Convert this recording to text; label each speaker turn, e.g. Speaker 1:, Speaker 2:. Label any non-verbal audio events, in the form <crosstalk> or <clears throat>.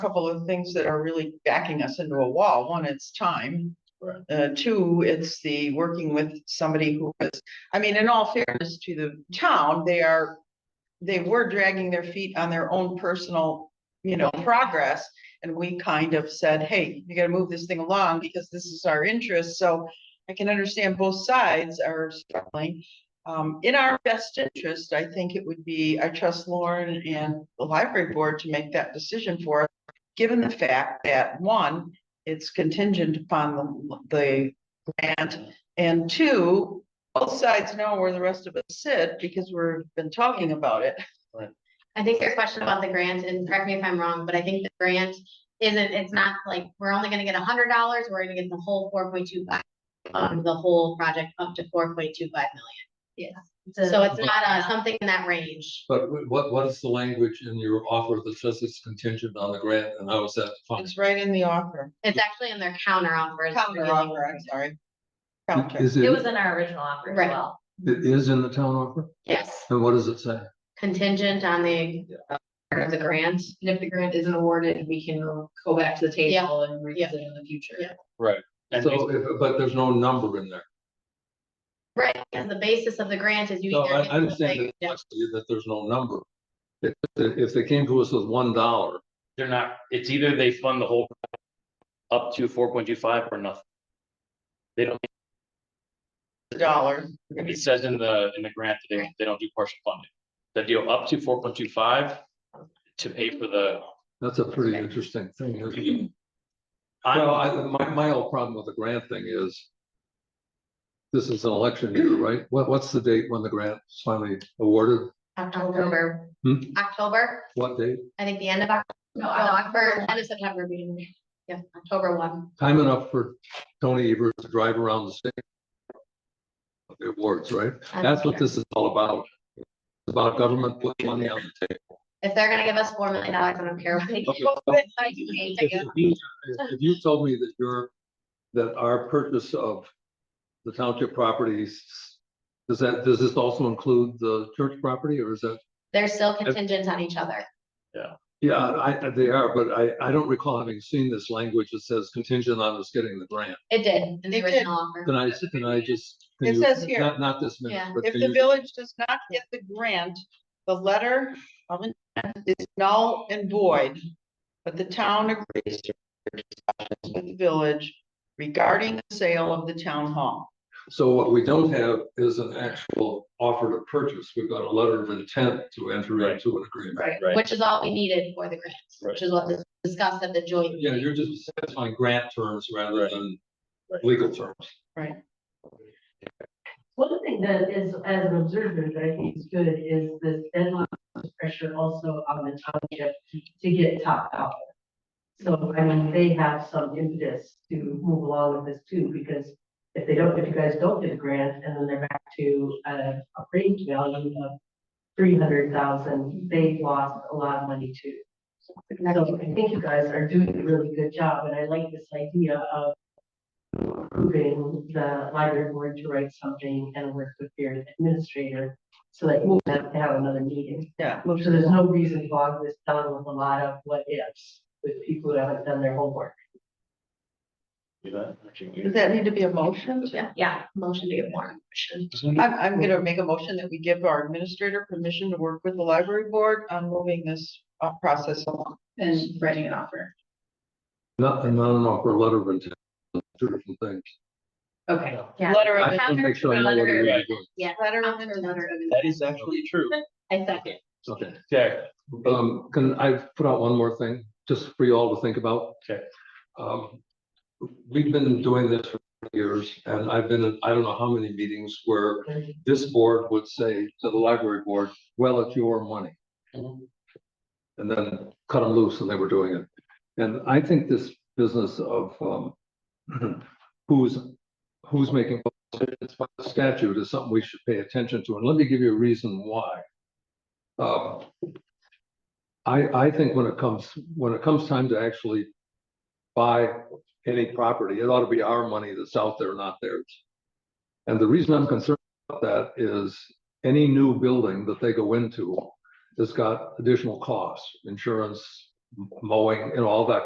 Speaker 1: couple of things that are really backing us into a wall. One, it's time.
Speaker 2: Right.
Speaker 1: Uh, two, it's the working with somebody who was, I mean, in all fairness to the town, they are, they were dragging their feet on their own personal, you know, progress. And we kind of said, hey, you gotta move this thing along because this is our interest. So I can understand both sides are struggling. Um, in our best interest, I think it would be, I trust Lauren and the library board to make that decision for us given the fact that, one, it's contingent upon the, the grant, and two, both sides know where the rest of us sit because we've been talking about it.
Speaker 3: I think your question about the grant, and correct me if I'm wrong, but I think the grant isn't, it's not like, we're only gonna get a hundred dollars, we're gonna get the whole four point two five. Um, the whole project up to four point two five million. Yes. So it's not uh something in that range.
Speaker 2: But wh- what, what is the language in your offer that says it's contingent on the grant and how is that defined?
Speaker 1: It's right in the offer,
Speaker 3: It's actually in their counter offer. is the
Speaker 1: counter
Speaker 3: beginning.
Speaker 1: offer, I'm sorry. Counter,
Speaker 2: Is
Speaker 4: It
Speaker 2: it,
Speaker 4: was in our original offer as
Speaker 3: Right.
Speaker 4: well.
Speaker 2: it is in the town offer?
Speaker 3: Yes,
Speaker 2: And what does it say?
Speaker 3: contingent on the,
Speaker 4: Part of the grant, and if the grant isn't awarded, we can go back to the table and revisit in the future.
Speaker 3: Yeah.
Speaker 5: And
Speaker 2: So,
Speaker 5: we-
Speaker 2: if but there's no number in there.
Speaker 3: right, and the basis of the grant is you.
Speaker 2: No,
Speaker 3: either
Speaker 2: I,
Speaker 3: get
Speaker 2: I understand
Speaker 3: something-
Speaker 2: the complexity that there's no number. If, if they came to us with one dollar,
Speaker 5: they're not, it's either they fund the whole up to four point two five or nothing. They don't,
Speaker 1: dollar,
Speaker 5: it says in the, in the grant that they, they don't do partial funding. They deal up to four point two five to pay for the.
Speaker 2: that's a pretty interesting thing. isn't it? <clears throat> Well,
Speaker 5: I'm-
Speaker 2: I, my, my whole problem with the grant thing is. This is an election year, right? What, what's the date when the grant is finally awarded?
Speaker 3: October,
Speaker 2: Hmm?
Speaker 3: October,
Speaker 2: What date?
Speaker 3: I think the end of October,
Speaker 4: No, I-
Speaker 3: October, end of September, beginning, yeah, October one.
Speaker 2: Time enough for Tony Evers to drive around the state. of The awards, right?
Speaker 3: I'm
Speaker 2: That's what
Speaker 3: sure.
Speaker 2: this is all about. It's About government putting money on the table.
Speaker 3: If they're gonna give us four million dollars, I don't care what they
Speaker 2: Okay.
Speaker 3: do. <laughs> I do hate to
Speaker 2: If
Speaker 3: give-
Speaker 2: you- if you told me that your, that our purchase of the township properties, does that, does this also include the church property or is that?
Speaker 3: They're still contingent on each other.
Speaker 2: Yeah, I, I- they are, but I, I don't recall having seen this language that says contingent on us getting the grant.
Speaker 3: It did in
Speaker 1: It did.
Speaker 3: the original offer.
Speaker 2: Can I, can I just? can
Speaker 1: It
Speaker 2: you-
Speaker 1: says here.
Speaker 2: Not, not this minute,
Speaker 3: Yeah.
Speaker 2: but
Speaker 1: if
Speaker 2: can
Speaker 1: the
Speaker 2: you-
Speaker 1: village does not get the grant, the letter of intent is null and void. But the town agrees to discussions with the village regarding the sale of the town hall.
Speaker 2: So what we don't have is an actual offer to purchase. We've got a letter of intent to enter
Speaker 5: Right.
Speaker 2: into an agreement.
Speaker 4: Right.
Speaker 5: Right.
Speaker 3: Which is all we needed for the grant, which is what was discussed at the joint.
Speaker 2: Yeah,
Speaker 3: meeting.
Speaker 2: you're just satisfying grant terms rather than
Speaker 5: Right.
Speaker 2: legal terms.
Speaker 6: One thing that is, as an observer, that I think is good is this deadline pressure also on the township to get top dollar. So, I mean, they have some impetus to move along with this too, because if they don't, if you guys don't get a grant and then they're back to uh, a range value of three hundred thousand, they lost a lot of money too. So I think you guys are doing a really good job, and I like this idea of approving the library board to write something and work with your administrator so that you won't have to have another meeting.
Speaker 1: Yeah.
Speaker 6: So there's no reason to bog this down with a lot of what ifs with people who haven't done their homework.
Speaker 5: Do that, actually, we-
Speaker 1: Does that need to be a motion?
Speaker 3: Yeah, yeah, motion to give more.
Speaker 1: I'm, I'm gonna make a motion that we give our administrator permission to work with the library board on moving this uh, process along.
Speaker 4: And writing an offer.
Speaker 2: Not, not an offer, a letter of intent, two different things.
Speaker 4: Okay.
Speaker 3: Yeah.
Speaker 1: Letter
Speaker 2: I
Speaker 1: of,
Speaker 2: just wanna make sure I know what it is.
Speaker 1: letter of
Speaker 3: After
Speaker 1: intent.
Speaker 3: letter of intent.
Speaker 5: That is actually true.
Speaker 3: I second.
Speaker 2: Okay,
Speaker 5: Yeah,
Speaker 2: um, can I put out one more thing, just for you all to think about?
Speaker 5: Okay.
Speaker 2: Um, we've been doing this for years, and I've been, in I don't know how many meetings where this board would say to the library board, well, it's your money.
Speaker 5: Mhm.
Speaker 2: And then cut them loose, and they were doing it. And I think this business of, um, <clears throat> who's, who's making decisions by the statute is something we should pay attention to, and let me give you a reason why. Um, I, I think when it comes, when it comes time to actually buy any property, it ought to be our money that's out there, not theirs. And the reason I'm concerned about that is any new building that they go into has got additional costs, insurance, mowing and all that